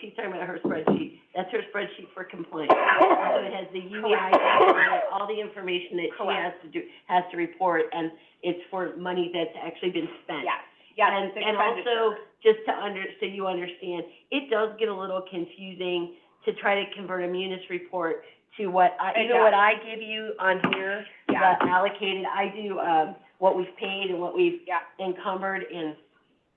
she's talking about her spreadsheet, that's her spreadsheet for compliance. So it has the UEI, on it, all the information that she has to do, has to report, and it's for money that's actually been spent. Yes, yes, And, it's and also, just to under, so you understand, it does get a little confusing to try to convert a munis report to what I, It even what I give you on here, the Yeah. allocated, I do, um, what we've paid and what we've Yeah. encumbered and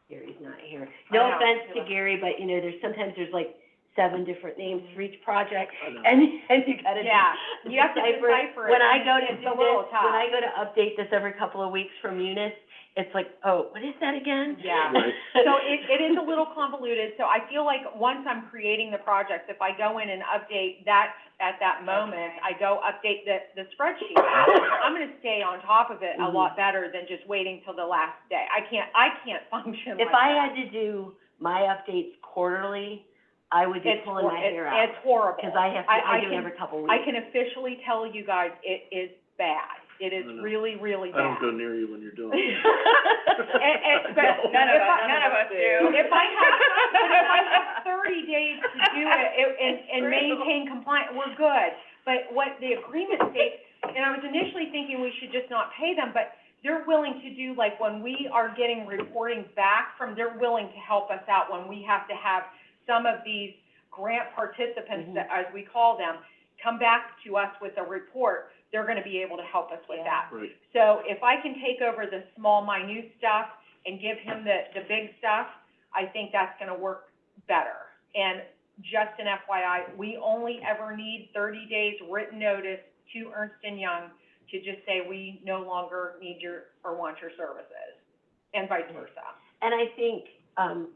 Gary's not here. I No know. offense to Gary, but you know, there's, sometimes there's like seven different names for each project and, and you gotta do- Yeah, you have to decipher it When I and go to it's do a this, little tough. when I go to update this every couple of weeks from Munis, it's like, oh, what is that again? Yeah. Right. So it, it is a little convoluted, so I feel like once I'm creating the projects, if I go in and update that at that moment, I go update the, the spreadsheet, I'm gonna stay on top of it a Mm-hmm. lot better than just waiting till the last day. I can't, I can't function like If I had that. to do my updates quarterly, I would be It's pulling hor- my it's- hair out. It's horrible. Cause I have, to- I- I I do it can- every couple of I weeks. can officially tell you guys, it is bad. It is No, no. really, really I don't bad. go near you when you're doing it. And, and, but No. if None of I- us- none of us do. If I have, but if I have thirty days to do it, it- and, and maintain compliance, we're good. But what the agreement states, and I was initially thinking we should just not pay them, but they're willing to do, like, when we are getting reporting back from, they're willing to help us out when we have to have some of these grant participants, Mm-hmm. that- as we call them, come back to us with a report, they're gonna be able to help us with Yeah. that. Right, So if I can take over the small, minute stuff and give him the, the big stuff, I think that's gonna work better. And just an FYI, we only ever need thirty days written notice to Ernst and Young to just say, we no longer need your, or want your services, and vice versa. And I think, um,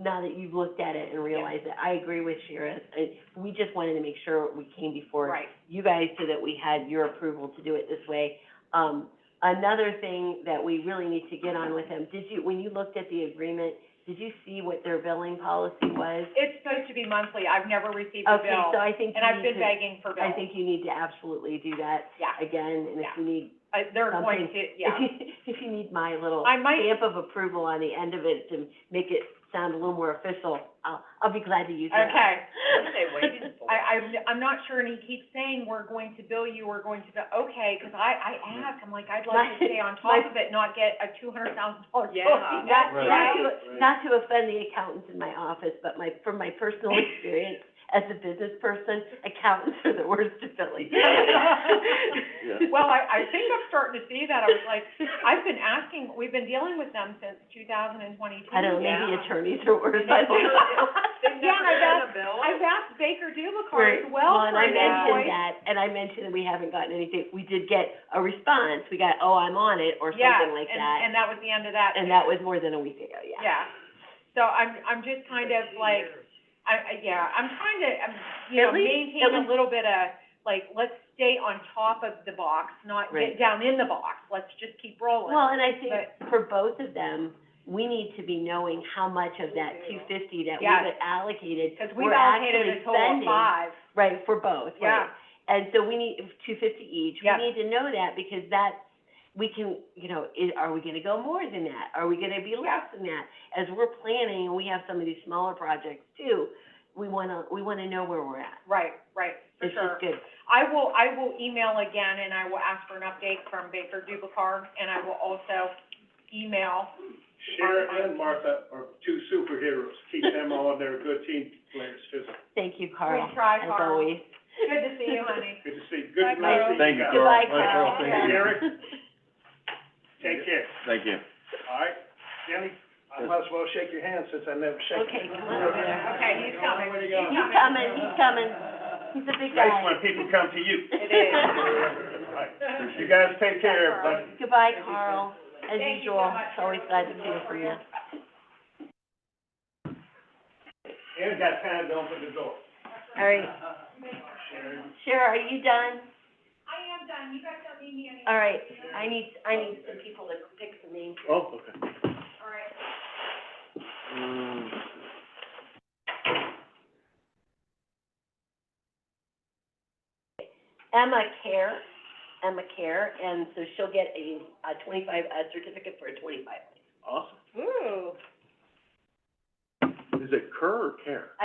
now that you've looked at it and realized it, I agree with Shira. I- We just wanted to make sure we came before Right. you guys so that we had your approval to do it this way. Um, another thing that we really need to get on with them, did you, when you looked at the agreement, did you see what their billing policy was? It's supposed to be monthly, I've never received a Okay, so bill, I think and you I've need been to, begging for I bills. think you need to absolutely do that Yeah, again, and if Yeah. you need, I- they're going something- to, yeah. if you need my little I might- stamp of approval on the end of it to make it sound a little more official, I'll, I'll be glad to use that. Okay. What are they waiting for? I, I'm, I'm not sure, and he keeps saying, we're going to bill you, we're going to bill, okay, 'cause I, I asked, I'm like, I'd like to stay on top of it, not get a two hundred thousand dollar bill. Yeah. Not, Right. not to, Right. not to offend the accountants in my office, but my, from my personal experience as a business person, accountants are the worst at billing. yeah. Well, I, I think I'm starting to see that, I was like, I've been asking, we've been dealing with them since two thousand and twenty-two. I don't know, maybe Yeah. attorneys are worse, I don't know. They've Yeah, never I done a bill. I've asked Baker Dubakar Right. as well and for I an that mentioned invoice. that, and I mentioned that we haven't gotten anything, we did get a response, we got, oh, I'm on it, or something like Yeah, that. and, and that was the end of that. And that was more than a week ago, yeah. Yeah, so I'm, I'm just kind of like, I, I, yeah, I'm trying to, I'm, you At know, least- maintain at a least- little bit of, like, let's stay on top of the box, not Right. get down in the box, let's just keep rolling. Well, and I think for both of them, we need to be knowing how much of that two fifty that Yes. we've allocated, Because we've we're allocated actually a total of spending. five, Right, for both, right. yeah, And so we need, two fifty each, we Yeah. need to know that because that's, we can, you know, i- are we gonna go more than that? Are we gonna be less than that? As we're planning, and we have some of these smaller projects too, we wanna, we wanna know where we're at. right, right, for This is sure. good. I will, I will email again, and I will ask for an update from Baker Dubakar, and I will also email, Sharon and Martha are two superheroes, keep them on, they're good team players too. Thank you, Carl, Good try, as Carl. always. good to see you, honey. Good to see, Bye, good, nice to see you Thank you, guys. Carl. Goodbye, Bye, Carl. Thank you. Gary, take care, Thank you. all right? Jenny, I might as well shake your hand since I never shake Okay, it. come on over there. Okay, he's coming, Way he's to go. coming. He's coming, he's coming. He's a big Nice guy. when people come to you. It is. All right. You guys take care, everybody. Goodbye, Carl. As Thank you so usual, much. it's always glad to hear from you. Aaron got time to open the door. All right. Shara, are you done? I am done. You guys don't need me anymore. All right. I need, I need some people to pick some names. Oh, okay. All right. Um. Emma Care, Emma Care, and so she'll get a, a twenty-five, a certificate for a twenty-five. Awesome. Ooh. Is it Kerr or Care?